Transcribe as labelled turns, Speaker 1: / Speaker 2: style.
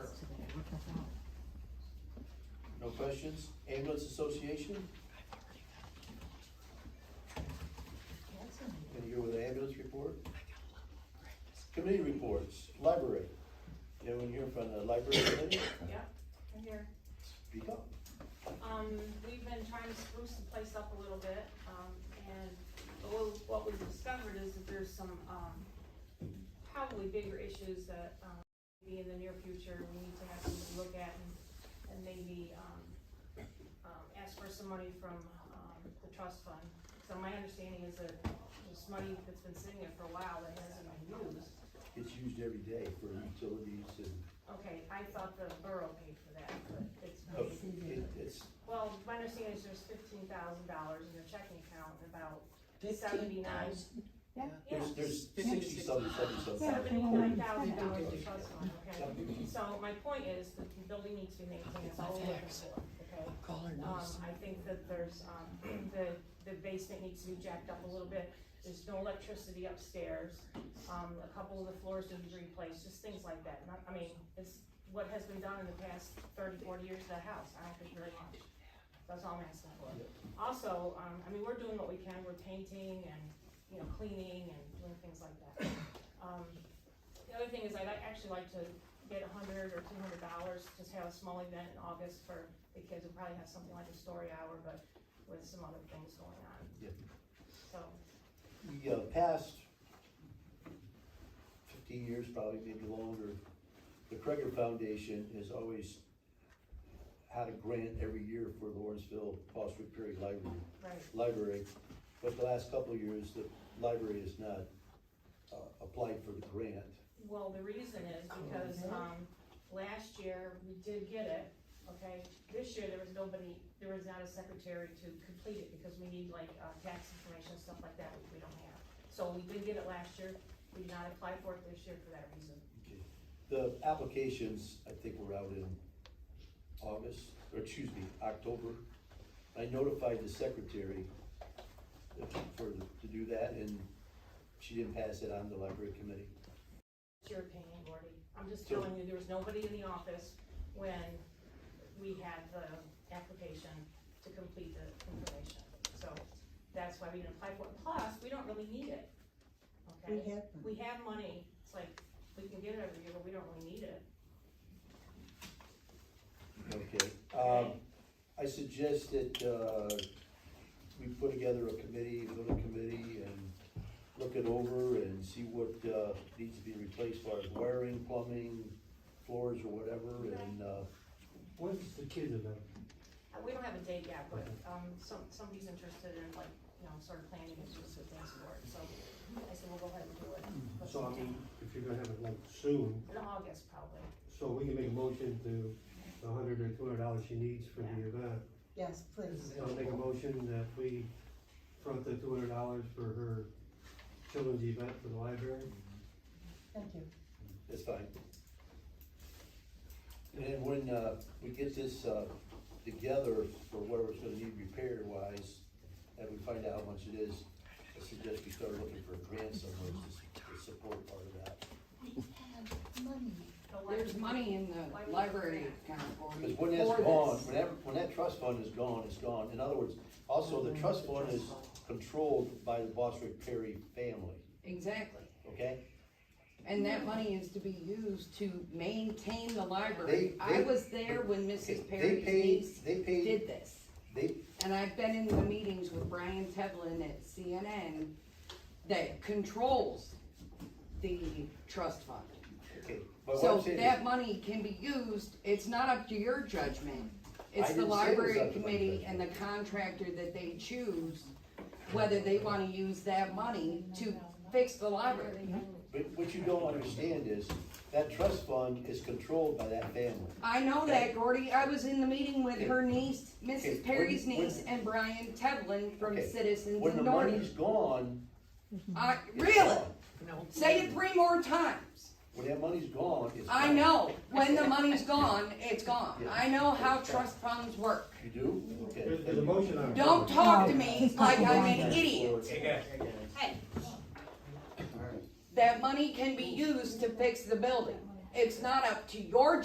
Speaker 1: Questions? Ambulance Association? And you're with the ambulance report? Committee reports, library. You have one here from the library committee?
Speaker 2: Yeah, I'm here.
Speaker 1: Speak up.
Speaker 2: Um, we've been trying to spruce the place up a little bit, um, and what- what we've discovered is that there's some, um, probably bigger issues that, um, maybe in the near future, we need to have to look at and, and maybe, um, um, ask for some money from, um, the trust fund. So my understanding is that this money that's been sitting there for a while that hasn't been used,
Speaker 1: It's used every day for utilities and,
Speaker 2: okay, I thought the borough paid for that, but it's.
Speaker 1: oh, it- it's,
Speaker 2: Well, my understanding is there's fifteen thousand dollars in your checking account, and about
Speaker 3: Fifteen
Speaker 2: seventy-nine,
Speaker 3: thousand.
Speaker 1: there's, there's sixty something, seventy something.
Speaker 2: seventy-nine thousand dollars in trust fund, okay?
Speaker 1: Seventy.
Speaker 2: So my point is, the building needs to be maintained, that's all we're looking for, okay?
Speaker 3: Call her
Speaker 2: Um,
Speaker 3: notice.
Speaker 2: I think that there's, um, the, the basement needs to be jacked up a little bit, there's no electricity upstairs. Um, a couple of the floors need to be replaced, just things like that, not, I mean, it's what has been done in the past 30, 40 years of that house, I don't think very much. That's all I'm asking for. Also, um, I mean, we're doing what we can, we're painting and, you know, cleaning and doing things like that. Um, the other thing is I'd actually like to get a hundred or two hundred dollars, just have a small event in August for the kids, we'll probably have something like a story hour, but with some other things going on.
Speaker 1: Yeah.
Speaker 2: So,
Speaker 1: We uh, passed fifteen years, probably maybe longer, the Kreger Foundation has always had a grant every year for Lawrenceville Foster Perry Library.
Speaker 2: right,
Speaker 1: library, but the last couple of years, the library has not, uh, applied for the grant.
Speaker 2: well, the reason is because, um, last year, we did get it, okay? This year, there was nobody, there was not a secretary to complete it, because we need like, uh, tax information, stuff like that, which we don't have. So we did get it last year, we did not apply for it this year for that reason.
Speaker 1: The applications, I think, were out in August, or excuse me, October. I notified the secretary for, to do that, and she didn't pass it on to the library committee.
Speaker 2: It's your opinion, Gordy. I'm just
Speaker 1: Sure.
Speaker 2: telling you, there was nobody in the office when we had the application to complete the information. So that's why we didn't apply for it. Plus, we don't really need it,
Speaker 3: We
Speaker 2: okay?
Speaker 3: have
Speaker 2: We have money. It's like, we can get it every year, but we don't really need it.
Speaker 1: Okay, um, I suggest that, uh, we put together a committee, go to committee and look it over and see what, uh, needs to be replaced as far as wiring, plumbing, floors or whatever, and, uh,
Speaker 4: When's the kid event?
Speaker 2: Uh, We don't have a date yet, but, um, some, somebody's interested in like, you know, sort of planning and just things for it. So I said, we'll go ahead and do it. But
Speaker 4: So I mean, if you're gonna have it like soon,
Speaker 2: In August, probably.
Speaker 4: so we can make a motion to the hundred or two hundred dollars she needs for the event.
Speaker 3: Yes, please.
Speaker 4: I'll make a motion that we front the two hundred dollars for her children's event for the library.
Speaker 3: Thank you.
Speaker 1: that's fine. And then when, uh, we get this, uh, together for whatever's gonna need repair wise, and we find out how much it is, I suggest we start looking for a grant somewhere to s- to support part of that.
Speaker 2: The library-
Speaker 5: There's money in the library account
Speaker 1: Because
Speaker 5: for
Speaker 1: when
Speaker 5: me.
Speaker 1: that's gone, when that, when that trust fund is gone, it's gone. In other words, also the trust fund is controlled by the Bostwick Perry family,
Speaker 5: Exactly.
Speaker 1: okay?
Speaker 5: And that money is to be used to maintain the
Speaker 1: They-
Speaker 5: library. I
Speaker 1: they-
Speaker 5: was there when
Speaker 1: They
Speaker 5: Mrs. Perry's
Speaker 1: paid,
Speaker 5: niece
Speaker 1: they paid,
Speaker 5: did this.
Speaker 1: they,
Speaker 5: And I've been in the meetings with Brian Tevlin at CNN that controls the trust fund.
Speaker 1: okay, but what
Speaker 5: So
Speaker 1: I'm saying
Speaker 5: that
Speaker 1: is,
Speaker 5: money can be used, it's not up to your judgment.
Speaker 1: I
Speaker 5: It's
Speaker 1: didn't say
Speaker 5: the
Speaker 1: it was up
Speaker 5: library
Speaker 1: to my
Speaker 5: committee
Speaker 1: judgment.
Speaker 5: and the contractor that they choose, whether they wanna use that money to fix the library.
Speaker 1: but what you don't understand is, that trust fund is controlled by that family.
Speaker 5: I know that, Gordy, I was in the meeting with her niece,
Speaker 1: Okay, when-
Speaker 5: Mrs. Perry's
Speaker 1: when-
Speaker 5: niece, and Brian Tevlin from
Speaker 1: Okay,
Speaker 5: Citizens
Speaker 1: When the
Speaker 5: of
Speaker 1: money's
Speaker 5: Norton.
Speaker 1: gone.
Speaker 5: I,
Speaker 1: it's
Speaker 5: really,
Speaker 1: gone.
Speaker 5: say it three more times.
Speaker 1: When that money's gone, it's.
Speaker 5: I
Speaker 1: gone.
Speaker 5: know, when the money's gone, it's gone.
Speaker 1: Yeah.
Speaker 5: I know how trust funds work.
Speaker 1: You do? Okay.
Speaker 4: There's, there's a motion on. it.
Speaker 5: Don't talk to me like I'm an idiot. That money can be used to fix the building. It's not up to your